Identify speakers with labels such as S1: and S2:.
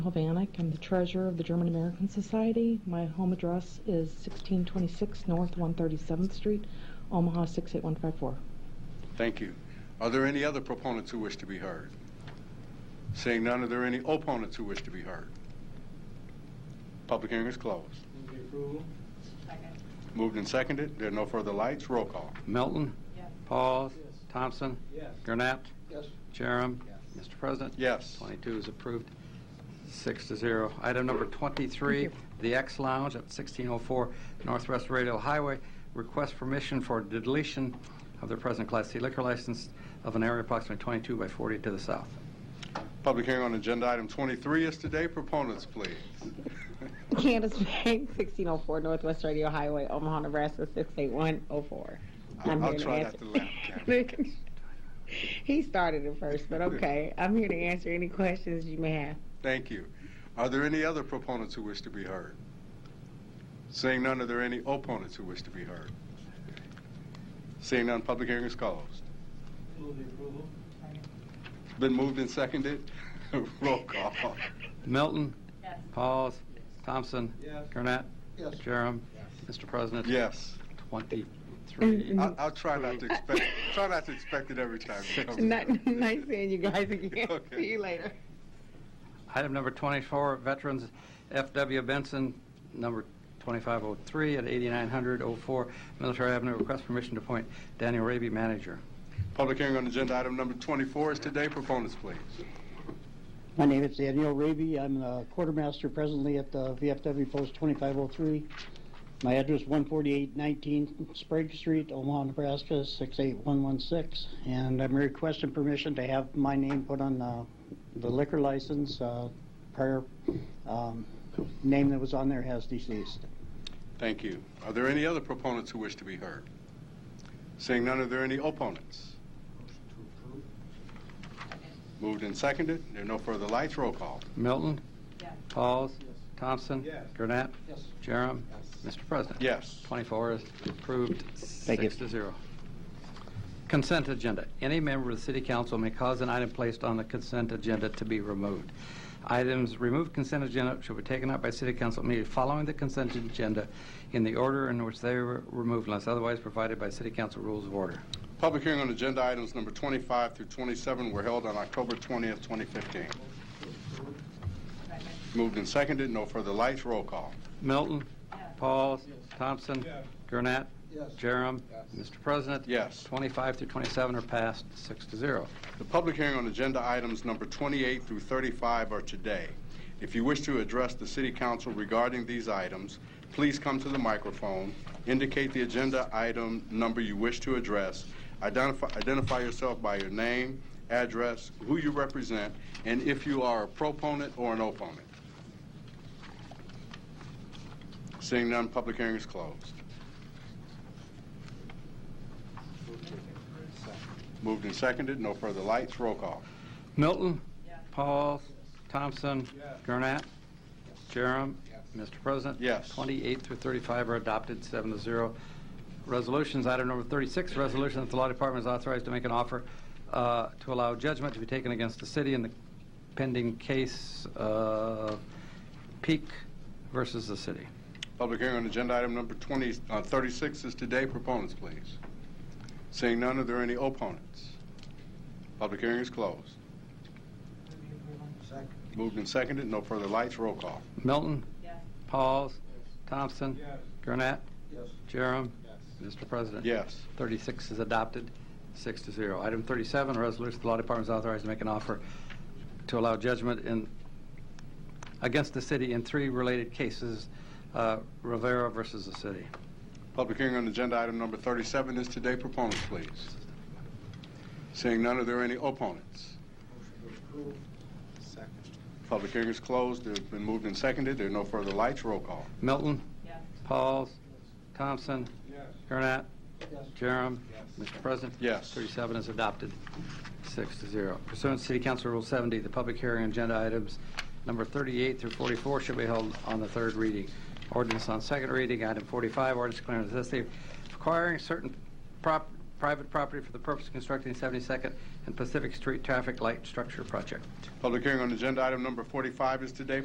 S1: Hovannik. I'm the treasurer of the German American Society. My home address is 1626 North 137th Street, Omaha 68154.
S2: Thank you. Are there any other proponents who wish to be heard? Seeing none, are there any opponents who wish to be heard? Public hearing is closed.
S3: Move the approval?
S4: Second.
S2: Moved and seconded. There are no further lights. Roll call.
S5: Milton.
S4: Yes.
S5: Pauls.
S3: Yes.
S5: Thompson.
S3: Yes.
S5: Gurnett.
S3: Yes.
S5: Jerem.
S3: Yes.
S5: Mr. President.
S2: Yes.
S5: 22 is approved, six to zero. Item number 23, the X Lounge at 1604 Northwest Radio Highway, request permission for deletion of their present Class C liquor license of an area approximately 22 by 40 to the south.
S2: Public hearing on agenda item 23 is today. Proponents, please.
S1: Candace Bank, 1604 Northwest Radio Highway, Omaha, Nebraska 68104. I'm
S2: I'll
S1: here to
S2: try
S1: answer-
S2: not to laugh, Candace.
S1: He started it first, but okay. I'm here to answer any questions you may have.
S2: Thank you. Are there any other proponents who wish to be heard? Seeing none, are there any opponents who wish to be heard? Seeing none, public hearing is closed.
S3: Move the approval?
S2: Been moved and seconded. Roll call.
S5: Milton.
S4: Yes.
S5: Pauls. Thompson.
S3: Yes.
S5: Gurnett.
S3: Yes.
S5: Jerem. Mr. President.
S2: Yes.
S5: 23.
S2: I'll, I'll try not to expect try not to expect it every time. it comes
S1: Not,
S2: up.
S1: nice seeing you guys again.
S2: Okay.
S1: See you later.
S5: Item number 24, Veterans F.W. Benson, number 2503 at 8900-04 Military Avenue, request permission to appoint Daniel Raby manager.
S2: Public hearing on agenda item number 24 is today. Proponents, please.
S6: My name is Daniel Raby. I'm a quartermaster presently at the VFW Post 2503. My address 14819 Sprague Street, Omaha, Nebraska 68116. And I'm requesting permission to have my name put on uh, the liquor license. Uh, Prior um, name that was on there has deceased.
S2: Thank you. Are there any other proponents who wish to be heard? Seeing none, are there any opponents?
S3: Motion to approve?
S2: Moved and seconded. There are no further lights. Roll call.
S5: Milton.
S4: Yes.
S5: Pauls.
S3: Yes.
S5: Thompson.
S3: Yes.
S5: Gurnett.
S3: Yes.
S5: Jerem.
S3: Yes.
S5: Mr. President.
S2: Yes.
S5: 24 is approved,
S6: you.
S5: six to zero. Consent agenda. Any member of the city council may cause an item placed on the consent agenda to be removed. Items removed consent agenda shall be taken up by city council immediately following the consent agenda in the order in which they were removed unless otherwise provided by city council rules of order.
S2: Public hearing on agenda items number 25 through 27 were held on October 20th, 2015.
S4: Second.
S2: Moved and seconded. No further lights. Roll call.
S5: Milton.
S4: Yes.
S5: Pauls.
S3: Yes.
S5: Thompson.
S3: Yes.
S5: Gurnett.
S3: Yes.
S5: Jerem.
S3: Yes.
S5: Mr. President.
S2: Yes.
S5: 25 through 27 are passed, six to zero.
S2: The public hearing on agenda items number 28 through 35 are today. If you wish to address the city council regarding these items, please come to the microphone, indicate the agenda item number you wish to address, identify identify yourself by your name, address, who you represent, and if you are a proponent or an opponent. Seeing none, public hearing is closed. Moved and seconded, no further lights, roll call.
S5: Milton.
S4: Yes.
S5: Pauls. Thompson.
S3: Yes.
S5: Gurnett. Jerem.
S3: Yes.
S5: Mr. President.
S2: Yes.
S5: 28 through 35 are adopted, seven to zero. Resolutions, item number 36, resolution that the law department is authorized to make an offer uh, to allow judgment to be taken against the city in the pending case of Peak versus the city.
S2: Public hearing on agenda item number 20, uh, 36 is today. Proponents, please. Seeing none, are there any opponents? Public hearing is closed.
S3: Second?
S2: Moved and seconded, no further lights, roll call.
S5: Milton.
S4: Yes.
S5: Pauls. Thompson.
S3: Yes.
S5: Gurnett.
S3: Yes.
S5: Jerem.
S3: Yes.
S5: Mr. President.
S2: Yes.
S5: 36 is adopted, six to zero. Item 37, a resolution, the law department is authorized to make an offer to allow judgment in, against the city in three related cases, uh, Rivera versus the city.
S2: Public hearing on agenda item number 37 is today. Proponents, please. Seeing none, are there any opponents?
S3: Motion to approve? Second?
S2: Public hearing is closed. It's been moved and seconded. There are no further lights, roll call.
S5: Milton,
S4: Yes.
S5: Pauls, Thompson,
S3: Yes.
S5: Gurnett,
S3: Yes.
S5: Jerem.
S3: Yes.
S5: Mr. President?
S2: Yes.
S5: 37 is adopted, six to zero. Pursuant to City Council Rule 70, the public hearing on agenda items number 38 through 44 shall be held on the third reading. Ordinance on second reading, item 45, ordinance declaring necessity of acquiring certain prop- private property for the purpose of constructing 72nd and Pacific Street Traffic Light Structure Project.
S2: Public hearing on agenda item number 45 is today.